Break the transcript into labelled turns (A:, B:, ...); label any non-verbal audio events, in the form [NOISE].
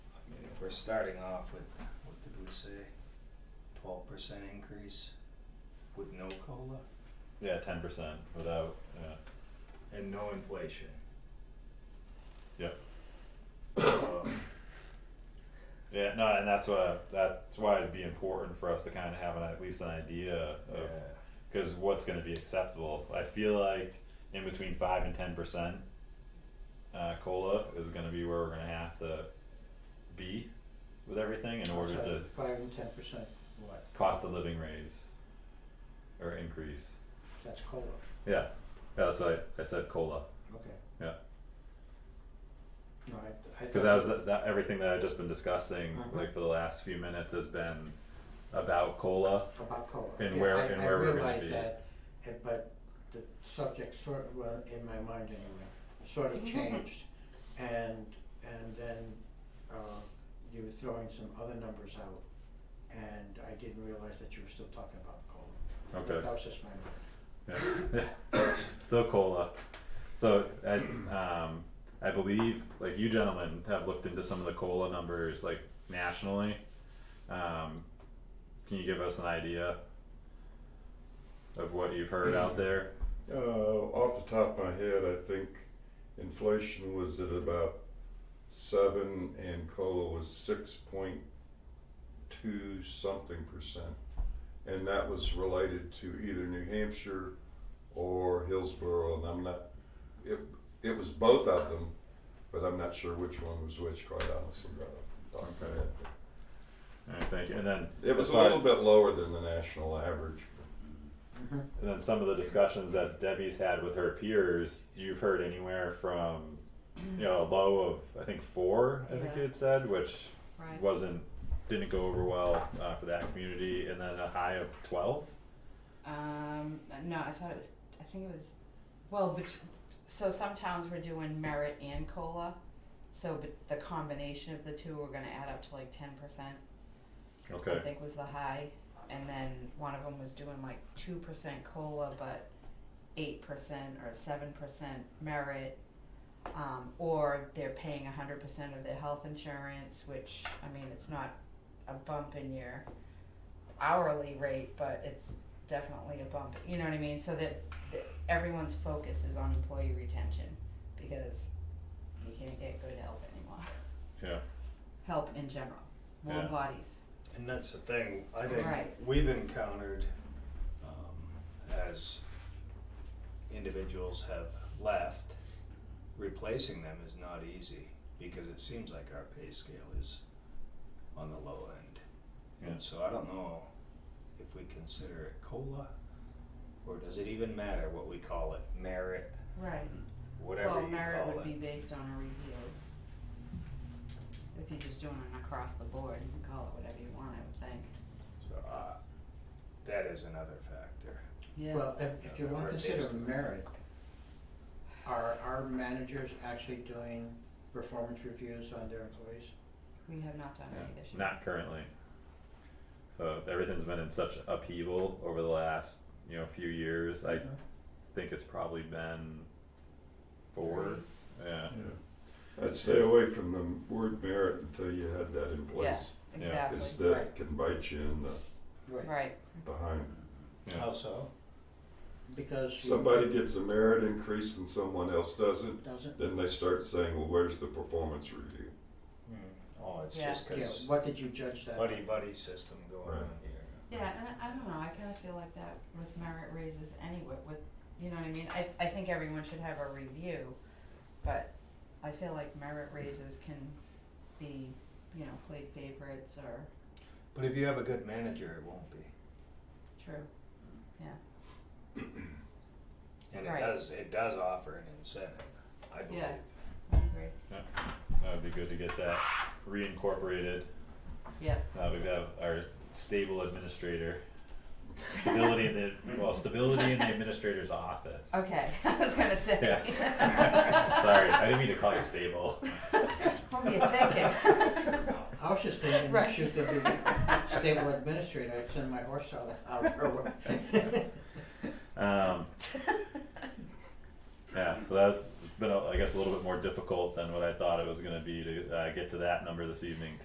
A: we're starting off with, what did we say? Twelve percent increase with no COLA
B: Yeah, ten percent without, yeah,
A: and no inflation.
B: Yep.
A: So,
B: yeah, no, and that's why, that's why it'd be important for us to kind of have an, at least an idea of,
A: yeah.
B: cause what's gonna be acceptable, I feel like in between five and ten percent. Uh, COLA is gonna be where we're gonna have to be with everything in order
C: Outside
B: to
C: of Five and ten percent, what,
B: cost of living raise or increase,
C: that's COLA,
B: yeah, yeah, that's why I said COLA,
C: okay.
B: Yeah.
C: No, I, I.
B: Cause
C: thought-
B: that was that, that everything that I've just been discussing,
C: Mhm.
B: like for the last few minutes, has been about cola.
C: About COLA.
B: And
C: Yeah,
B: where-
C: I-
B: and where we're gonna be.
C: I realize that, uh, but the subject sort of, well, in my mind anyway, sort [LAUGHS] of changed. And, and then, uh, you were throwing some other numbers out, and I didn't realize that you were still talking about COLA. But
B: Okay.
C: That was just my mind.
B: Yeah. [LAUGHS] Still cola. So I um I believe like you gentlemen have looked into some of the cola numbers like nationally. Um, can you give us an idea of what you've heard out there?
D: Uh, off the top of my head, I think inflation was at about seven and COLA was six point two something percent. And that was related to either New Hampshire or Hillsborough, and I'm not, it, it was both of them, but I'm not sure which one was which, quite honestly, right off the top of my head.
B: All right, thank you. And then
D: It was
B: as
D: a
B: far
D: little
B: as-
D: bit lower than the national average,
C: Mm-hmm.
B: And then some of the discussions that Debbie's had with her peers, you've heard anywhere from, you know, a low of I think four, I think
E: Yeah.
B: you had said, which
E: Right.
B: wasn't didn't go over well uh, for that community, and then a high of twelve.
E: Um, no, I thought it was, I think it was, well, bet- so some towns were doing merit and COLA. So but the combination of the two were gonna add up to like ten percent, I
B: Okay.
E: think was the high. And then one of them was doing like two percent COLA, but eight percent or seven percent merit. Um, or they're paying a hundred percent of their health insurance, which, I mean, it's not a bump in your hourly rate, but it's definitely a bump, you know what I mean? So that, that everyone's focus is on employee retention because you can't get good help anymore. [LAUGHS]
B: Yeah.
E: Help in general, more
B: Yeah.
E: bodies,
A: And that's the thing, I think
E: Right.
A: we've encountered, um, as individuals have left, replacing them is not easy, because it seems like our pay scale is on the low end.
B: Yeah.
A: And so I don't know if we consider it COLA, or does it even matter what we call it, merit,
E: right?
A: whatever you call it.
E: Well, merit would be based on a review. If you're just doing it across the board, you can call it whatever you want, I would think.
A: So, uh, that is another factor.
E: Yeah.
C: Well, if, if you want to consider
A: Merit-based.
C: merit, are our managers actually doing performance reviews on their employees?
E: We have not done any this year.
B: Not currently. So everything's been in such upheaval over the last you know few years. I
C: Mhm.
B: think it's probably been four. Yeah.
D: Yeah, I'd stay away from the word merit until you had that in place,
E: Exactly,
D: cause that can bite you in the
C: Right,
E: right,
D: behind.
B: Yeah.
A: How so?
C: because. you-
D: Somebody gets a merit increase and someone else doesn't,
C: Doesn't,
D: then they start saying, well, where's the performance review?
A: Hmm. Oh, it's
E: Yeah.
A: just
C: yeah,
A: because
C: what did you judge that?
A: buddy buddy system going
D: Right.
A: on here.
E: yeah, and I- I don't know, I kinda feel like that with merit raises anyway, with, you know what I mean, I I think everyone should have a review, but I feel like merit raises can be, you know, played favorites or
A: But if you have a good manager, it won't be.
E: true,
A: And it
E: Right.
A: does it does offer an incentive, I believe.
E: Yeah. I agree,
B: That would be good to get that reincorporated.
E: yeah,
B: Now we have Uh, our stable administrator. Stability in the well, stability in the administrator's office.
E: okay, [LAUGHS] I was gonna say.
B: [LAUGHS] Sorry, I didn't mean to call you stable.
E: [LAUGHS] What were you thinking?
C: I was just thinking,
E: Right.
C: should there be stable administrator, I'd send my horse out, out her way.
B: Um, yeah, so that's been, a- I guess, a little bit more difficult than what I thought it was going to be to uh, get to that number this evening